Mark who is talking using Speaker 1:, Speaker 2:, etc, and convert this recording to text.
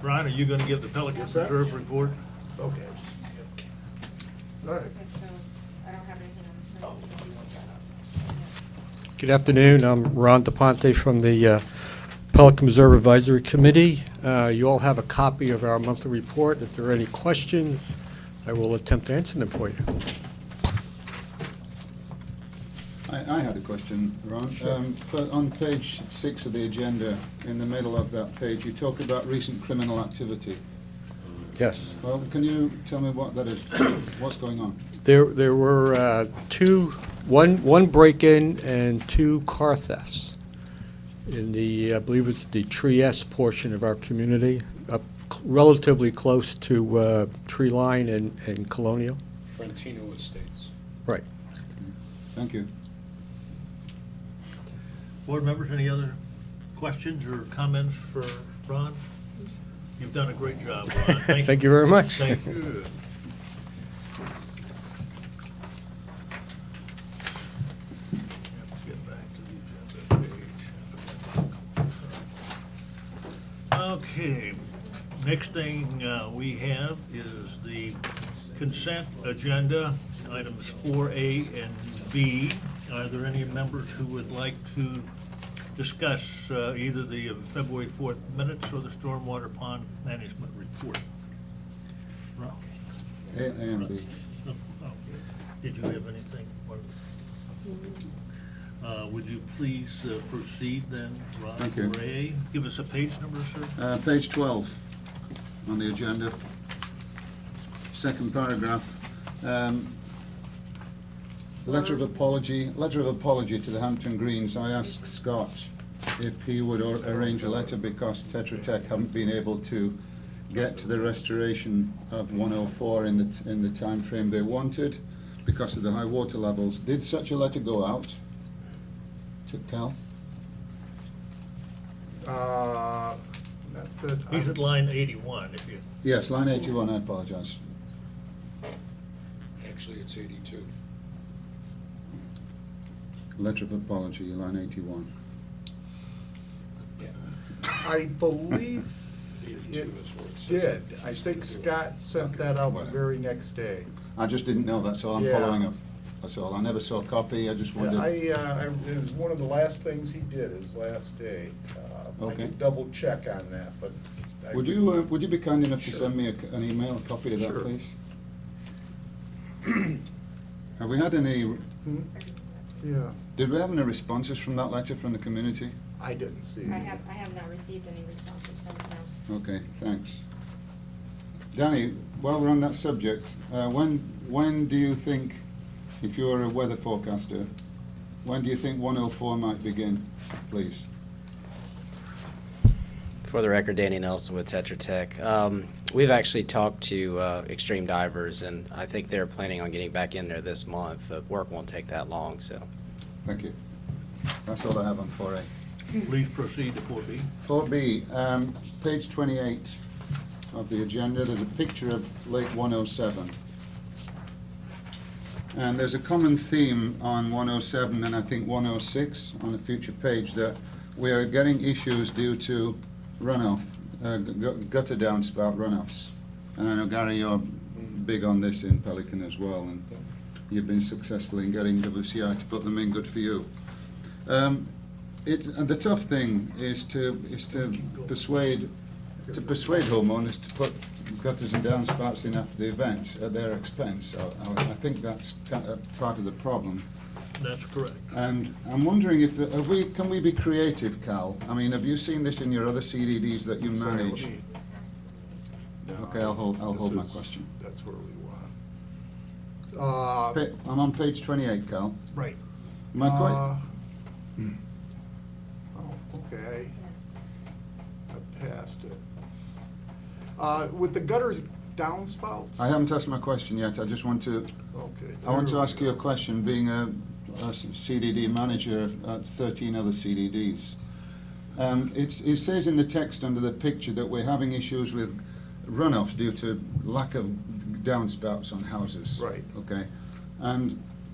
Speaker 1: Brian, are you gonna give the Pelican
Speaker 2: Yes, sir.
Speaker 1: Reserve report?
Speaker 2: Okay. All right.
Speaker 3: Okay, so I don't have anything on this.
Speaker 4: Good afternoon. I'm Ron DePonte from the uh, Pelican Reserve Advisory Committee. Uh, You all have a copy of our monthly report. If there are any questions, I will attempt to answer them for you.
Speaker 5: I, I had a question, Ron. Um, for- on page six of the agenda, in the middle of that page, you talk about recent criminal activity.
Speaker 4: Yes.
Speaker 5: Well, can you tell me what that is? What's going on?
Speaker 4: There there were uh, two, one one break-in and two car thefts in the, I believe it's the Tree-S portion of our community, up cl- relatively close to uh, Tree Line and and Colonial.
Speaker 6: Frontino Estates.
Speaker 4: Right.
Speaker 5: Thank you.
Speaker 1: Board members, any other questions or comments for Ron? You've done a great job, Ron.
Speaker 4: Thank you very much.
Speaker 1: Thank you. Get back to the agenda page. Okay, next thing uh, we have is the consent agenda, items four A and B. Are there any members who would like to discuss uh, either the February fourth minutes or the stormwater pond management report? Ron?
Speaker 5: A, A and B.
Speaker 1: Oh, oh. Did you have anything? for- Uh, Would you please uh, proceed then, Rod
Speaker 5: Thank you.
Speaker 1: Ray? Give us a page number, sir.
Speaker 5: Uh, page 12 on the agenda, second paragraph. Um, Letter of apology, letter of apology to the Hampton Greens. I asked Scott if he would or- arrange a letter because Tetra Tech haven't been able to get to the restoration of 104 in the, t- in the timeframe they wanted because of the high water levels. Did such a letter go out to Cal?
Speaker 2: Uh, that- that-
Speaker 1: He's at line 81, if you,
Speaker 5: Yes, line 81, I apologise.
Speaker 6: Actually, it's 82.
Speaker 5: Letter of apology, line 81.
Speaker 2: I believe
Speaker 6: 82
Speaker 2: it
Speaker 6: is worth six.
Speaker 2: did. I think Scott sent that out the very next day.
Speaker 5: I just didn't know, that's all, I'm
Speaker 2: Yeah.
Speaker 5: following up. That's all, I never saw a copy, I just
Speaker 2: Yeah,
Speaker 5: wondered.
Speaker 2: I, uh, I- it was one of the last things he did, his last day. Uh, I
Speaker 5: Okay.
Speaker 2: can double check on that, but. I-
Speaker 5: Would you, uh, would you be kind enough to
Speaker 2: Sure.
Speaker 5: send me a c- an email, a copy of
Speaker 2: Sure.
Speaker 5: that, please? Have we had any,
Speaker 2: Yeah,
Speaker 5: did we have any responses from that letter from the community?
Speaker 2: I didn't see.
Speaker 3: I
Speaker 2: it.
Speaker 3: have, I have not received any responses from them.
Speaker 5: Okay, thanks. Danny, while we're on that subject, uh, when, when do you think, if you're a weather forecaster, when do you think 104 might begin, please?
Speaker 7: For the record, Danny Nelson with Tetra Tech. Um, we've actually talked to uh, Extreme Divers, and I think they're planning on getting back in there this month. The work won't take that long, so.
Speaker 5: Thank you. That's all I have on 4A.
Speaker 1: please proceed to 4B.
Speaker 5: 4B, um, page 28 of the agenda, there's a picture of Lake 107. And there's a common theme on 107 and I think 106 on a future page that we are getting issues due to runoff, uh, gu- gu- gutter downspout runoffs. And I know Gary, you're big on this in Pelican as well, and you've been successful in getting WCI to put them in, good for you. Um, it, and the tough thing is to, is to persuade, to persuade homeowners to put gutters and downspouts in after the event at their expense. I, I I think that's kind of part of the problem.
Speaker 1: That's correct.
Speaker 5: And I'm wondering if, the- have we, can we be creative, Cal? I mean, have you seen this in your other CDDs that you manage? Okay, I'll hold, I'll hold my question.
Speaker 2: That's where we want. Uh,
Speaker 5: Pa- I'm on page twenty-eight, Cal.
Speaker 2: right.
Speaker 5: Am I
Speaker 2: Uh,
Speaker 5: quite, Hmm.
Speaker 2: Oh, okay, I I passed it. Uh, With the gutters downspouts?
Speaker 5: I haven't asked my question yet. I just want to
Speaker 2: Okay.
Speaker 5: I want
Speaker 2: there
Speaker 5: to
Speaker 2: we
Speaker 5: ask you a
Speaker 2: go.
Speaker 5: question, being a, a CDD manager at 13 other CDDs. Um, it's, it says in the text under the picture that we're having issues with runoff due to lack of downspouts on houses.
Speaker 2: Right.
Speaker 5: Okay. And